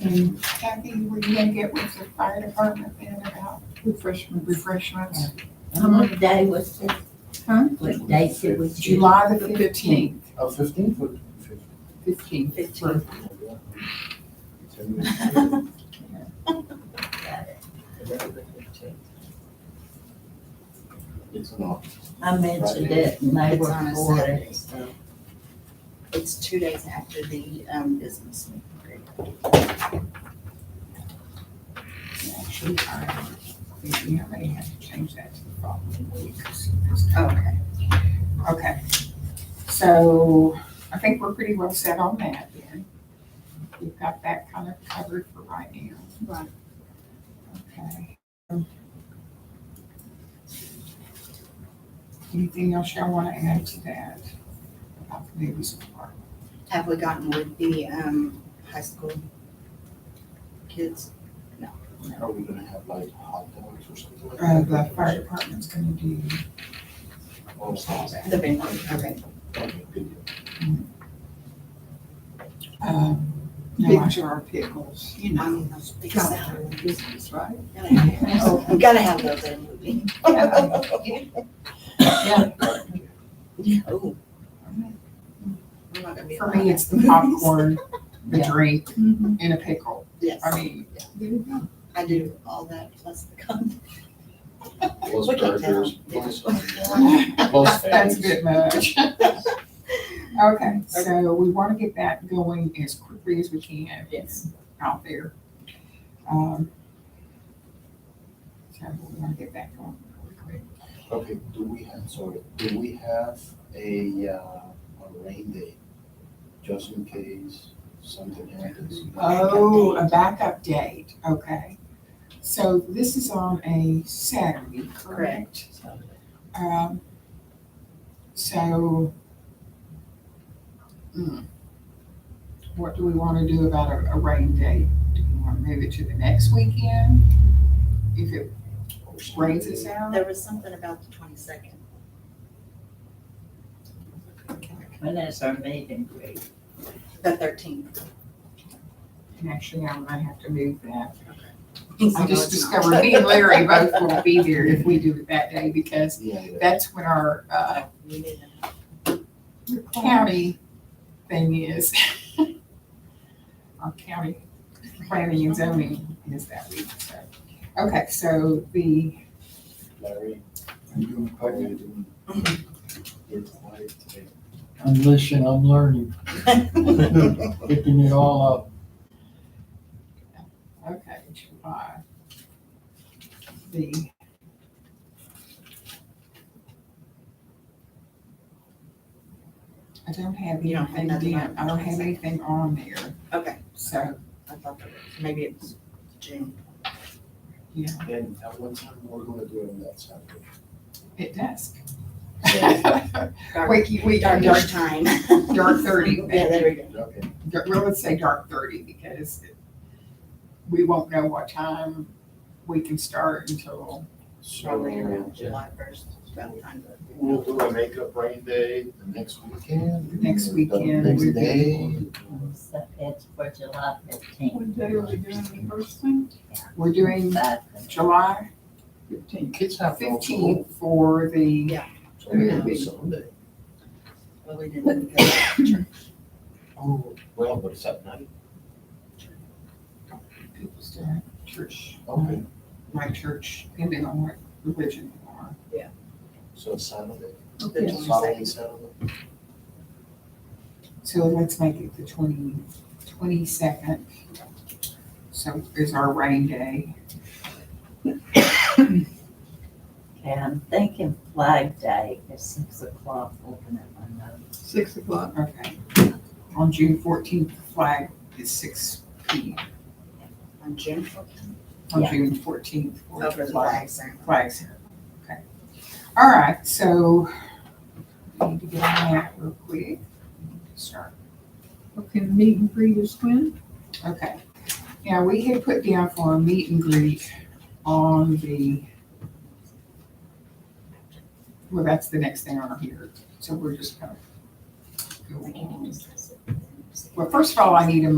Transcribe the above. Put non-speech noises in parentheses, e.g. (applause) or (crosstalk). And Kathy, will you then get with the fire department then about refreshment, refreshments? What day was it? Huh? What day should we choose? July the fifteenth, Oh, fifteenth or fifteen? fifteenth. Fifteenth. It's not. I mentioned it and they It's were on a for Saturday, it. so it's two days after the, um, business meeting. Actually, I, we already have to change that to the following week. Okay, Okay, so I think we're pretty well set on that then. We've got that kind of covered for right now. Right. Okay. Anything else y'all want to add to that? About the movies department? have we gotten with the, um, high school kids? Are we gonna have like hot dogs or something like Uh, that? the fire department's gonna do Or all something. that. The band, okay. Okay, good deal. Um, No, I sure our pickles, you know. Um, because that- Business, right? (laughs) Oh, We gotta have those in a movie. Yeah. Yeah. Oh, I'm not gonna be. For me, it's the popcorn, the Yeah. drink, Mhm. and a pickle. Yes, I mean, there you go. I do all that plus the con. Plus We can burgers, tell. plus, plus (laughs) That's a bit fries. much. Okay, so we want to get that going as quickly as we can Yes. out there. Um, So we want to get that going really quick. Okay, do we have, sorry, do we have a, uh, a rain day? Just in case something happens. Oh, a backup date, okay. So this is on a Saturday, correct? Um, so. hmm, What do we want to do about a, a rain date? Do we want to move it to the next weekend? If it Or something. rains us out? There was something about the twenty-second. When is our meeting, Greg? The thirteenth. And actually, I might have to move that. I just discovered me and Larry both won't be there if we do it that day because Yeah, yeah. that's when our, uh, We need to county thing is. (laughs) Our county planning and zoning is that week, so. Okay, so the, Larry, are you doing quite, you're doing, Mm-hmm. you're quiet today. (laughs) I'm listening, I'm learning, picking it all up. okay, July. The. I don't have You don't have anything, nothing down- I don't have on. anything on there, Okay, so, I thought that was, maybe it was June. yeah, And at uh, what time we're gonna do it on that (laughs) Saturday? it does. Dark- Wait, you- (laughs) we, our dark, Darkish time. dark thirty. (laughs) Yeah, there we go. Okay, dark- well, let's say dark thirty because it- we won't know what time we can start until, Probably so around July first, about time. we'll do a makeup rain day the next weekend? Next or the weekend Next would be- day? So It's for July fifteenth. What day are we doing the first thing? we're doing July Fifteenth. Kids have. no school. fifteenth for the, Yeah, So we can do Sunday. well, we didn't go to church. Oh, well, but it's at night. people still have church, Okay, my church, depending on what religion you are. so it's Saturday, The Yeah. following 22nd. Saturday. So let's make it the twenty, twenty-second. So is our rain day. Okay, I'm thinking Flag Day is six o'clock, looking at my notes. Six o'clock. Okay. On June fourteenth, flag is six P M. On June fourteenth. On Yeah. June fourteenth. Oh, for the flag ceremony. flags here. Okay. All right, so we need to get on that real quick. Start. Okay, the meet and greet is when? Okay. Now, we had put down for a meet and greet on the, well, that's the next thing on here. So we're just kind of. We go can on. discuss it. Well, first of all, I need a